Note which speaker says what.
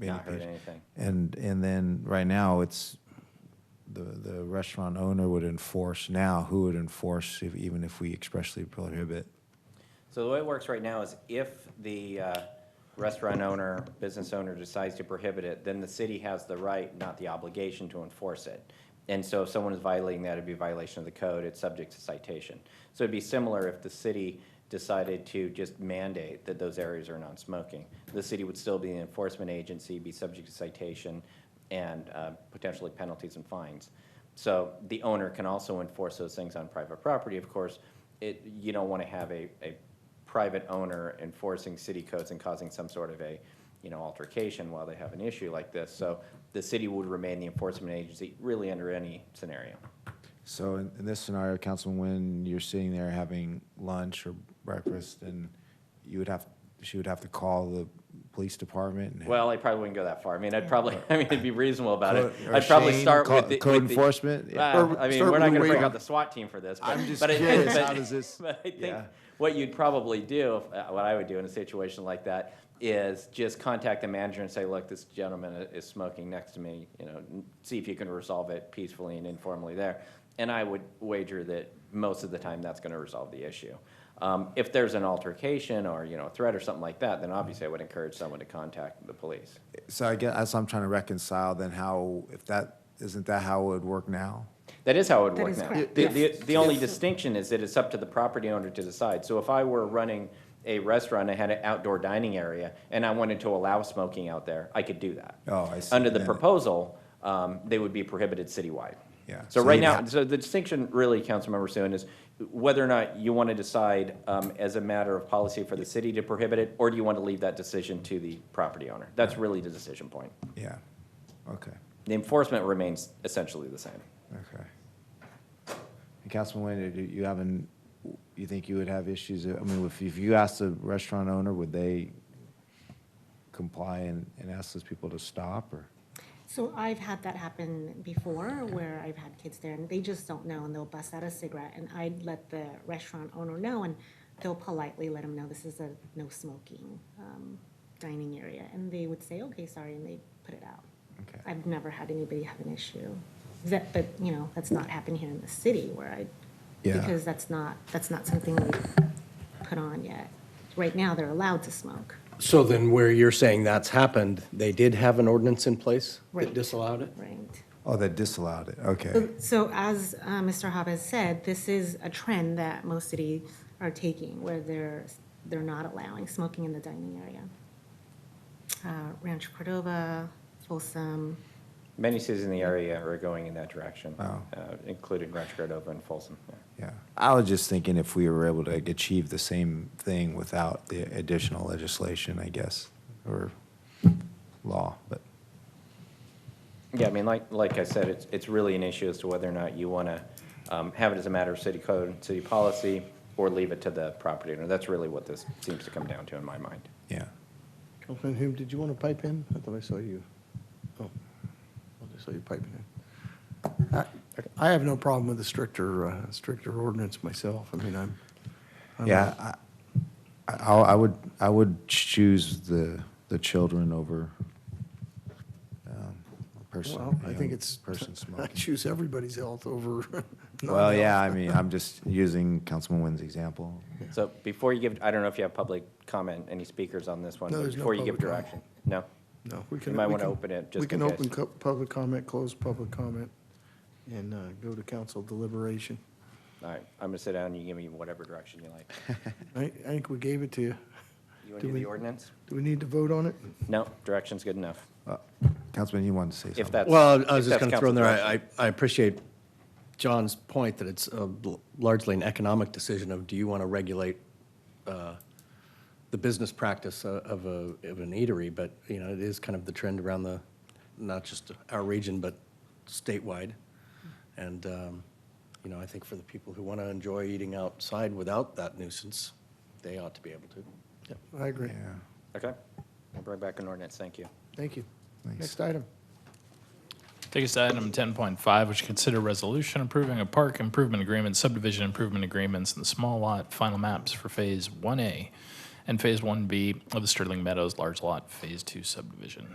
Speaker 1: any
Speaker 2: Not heard
Speaker 1: patient.
Speaker 2: anything.
Speaker 1: And, and then, right now, it's, the, the restaurant owner would enforce now, who would enforce if- even if we expressly prohibit?
Speaker 2: So the way it works right now is if the uh, restaurant owner, business owner decides to prohibit it, then the city has the right, not the obligation, to enforce it. And so if someone is violating that, it'd be a violation of the code, it's subject to citation. So it'd be similar if the city decided to just mandate that those areas are non-smoking. The city would still be an enforcement agency, be subject to citation, and uh, potentially penalties and fines. So the owner can also enforce those things on private property, of course. It, you don't want to have a, a private owner enforcing city codes and causing some sort of a, you know, altercation while they have an issue like this. So the city would remain the enforcement agency really under any scenario.
Speaker 1: So in, in this scenario, Councilman, when you're sitting there having lunch or breakfast, and you would have, she would have to call the police department and.
Speaker 2: Well, I probably wouldn't go that far. I mean, I'd probably, I mean, it'd be reasonable about it.
Speaker 1: Code- or
Speaker 2: I'd probably
Speaker 1: Shane,
Speaker 2: start
Speaker 1: co-
Speaker 2: with the.
Speaker 1: Code
Speaker 2: with the-
Speaker 1: enforcement?
Speaker 2: Well,
Speaker 3: Or
Speaker 2: I mean,
Speaker 3: start
Speaker 2: we're not
Speaker 3: with
Speaker 2: gonna
Speaker 3: the
Speaker 2: bring
Speaker 3: way-
Speaker 2: out the SWAT team for this, but.
Speaker 1: I'm just
Speaker 2: but it-
Speaker 1: curious,
Speaker 2: but-
Speaker 1: how does this-
Speaker 2: But I think
Speaker 1: yeah.
Speaker 2: what you'd probably do, if- uh, what I would do in a situation like that, is just contact the manager and say, look, this gentleman i- is smoking next to me, you know, n- see if you can resolve it peacefully and informally there. And I would wager that most of the time, that's gonna resolve the issue. Um, if there's an altercation or, you know, a threat or something like that, then obviously I would encourage someone to contact the police.
Speaker 1: So I guess, that's what I'm trying to reconcile, then how, if that, isn't that how it would work now?
Speaker 2: That is how it would
Speaker 4: That
Speaker 2: work
Speaker 4: is
Speaker 2: now.
Speaker 4: correct,
Speaker 2: The, the,
Speaker 4: yes.
Speaker 2: the only distinction is that it's up to the property owner to decide. So if I were running a restaurant, I had an outdoor dining area, and I wanted to allow smoking out there, I could do that.
Speaker 1: Oh, I see.
Speaker 2: Under the
Speaker 1: Then-
Speaker 2: proposal, um, they would be prohibited citywide.
Speaker 1: Yeah,
Speaker 2: So
Speaker 1: so
Speaker 2: right
Speaker 1: you'd
Speaker 2: now,
Speaker 1: have-
Speaker 2: so the distinction really, Councilmember Sue, is whether or not you want to decide, um, as a matter of policy for the city to prohibit it, or do you want to leave that decision to the property owner? That's really the decision point.
Speaker 1: Yeah, okay,
Speaker 2: The enforcement remains essentially the same.
Speaker 1: okay. And Councilman Wayne, do you haven't, you think you would have issues, I mean, if, if you asked the restaurant owner, would they comply and, and ask those people to stop, or?
Speaker 4: So I've had that happen before where I've had kids there and they just don't know and they'll bust out a cigarette and I'd let the restaurant owner know and they'll politely let them know this is a no smoking um, dining area and they would say, okay, sorry, and they put it out.
Speaker 1: Okay.
Speaker 4: I've never had anybody have an issue. That, but you know, that's not happened here in the city where I,
Speaker 1: Yeah.
Speaker 4: because that's not, that's not something we put on yet. Right now, they're allowed to smoke.
Speaker 5: So then where you're saying that's happened, they did have an ordinance in place
Speaker 4: Right.
Speaker 5: that disallowed it?
Speaker 4: Right.
Speaker 1: Oh, that disallowed it, okay.
Speaker 4: So as uh, Mr. Hobb has said, this is a trend that most cities are taking, where they're, they're not allowing smoking in the dining area. Uh, Rancho Cordova, Folsom,
Speaker 2: Many cities in the area are going in that direction,
Speaker 1: Wow.
Speaker 2: uh, including Rancho Cordova and Folsom. yeah.
Speaker 1: Yeah, I was just thinking if we were able to achieve the same thing without the additional legislation, I guess, or law, but,
Speaker 2: Yeah, I mean, like, like I said, it's, it's really an issue as to whether or not you want to have it as a matter of city code and city policy, or leave it to the property owner. That's really what this seems to come down to in my mind.
Speaker 1: yeah.
Speaker 3: Councilman Hume, did you want to pipe in? I thought I saw you. Oh, I just saw you piping in. I- I have no problem with the stricter, uh, stricter ordinance myself. I mean, I'm. I'm-
Speaker 1: Yeah, I, I, I would, I would choose the, the children over um, a person.
Speaker 3: Well,
Speaker 1: a
Speaker 3: I think
Speaker 1: young
Speaker 3: it's.
Speaker 1: Person
Speaker 3: I
Speaker 1: smoking.
Speaker 3: choose everybody's health over.
Speaker 1: Well, yeah, I
Speaker 3: non-health.
Speaker 1: mean, I'm just using Councilman Wynn's example.
Speaker 2: So before you give, I don't know if you have public comment, any speakers on this one?
Speaker 3: No,
Speaker 2: but
Speaker 3: there's no
Speaker 2: Before you give
Speaker 3: public
Speaker 2: direction?
Speaker 3: comment.
Speaker 2: No?
Speaker 3: No, we
Speaker 2: You
Speaker 3: can.
Speaker 2: might
Speaker 3: we
Speaker 2: wanna
Speaker 3: can-
Speaker 2: open it just
Speaker 3: We can
Speaker 2: in case.
Speaker 3: open co- public comment, close public comment, and uh, go to council deliberation.
Speaker 2: All right, I'm going to sit down, and you give me whatever direction you like.
Speaker 3: I, I think we gave it to you.
Speaker 2: You want to
Speaker 3: Do
Speaker 2: do
Speaker 3: we-
Speaker 2: the ordinance?
Speaker 3: Do we need to vote on it?
Speaker 2: No, direction's good enough,
Speaker 1: Uh, Councilman, you wanted to say something?
Speaker 2: if that's.
Speaker 5: Well, I
Speaker 2: if
Speaker 5: was just
Speaker 2: that's
Speaker 5: going to throw in
Speaker 2: council's
Speaker 5: there,
Speaker 2: direction.
Speaker 5: I, I I appreciate John's point that it's uh, l- largely an economic decision of, do you want to regulate uh, the business practice o- of a, of an eatery? But, you know, it is kind of the trend around the, not just our region, but statewide. And, um, you know, I think for the people who want to enjoy eating outside without that nuisance, they ought to be able to.
Speaker 3: I agree.
Speaker 1: Yeah.
Speaker 2: Okay, I'll bring back an ordinance, thank you.
Speaker 3: Thank you.
Speaker 1: Thanks.
Speaker 3: Next item.
Speaker 6: Take us to item ten point five, which consider resolution approving a park improvement agreement, subdivision improvement agreements, and small lot final maps for Phase One A and Phase One B of the Sterling Meadows Large Lot Phase Two subdivision.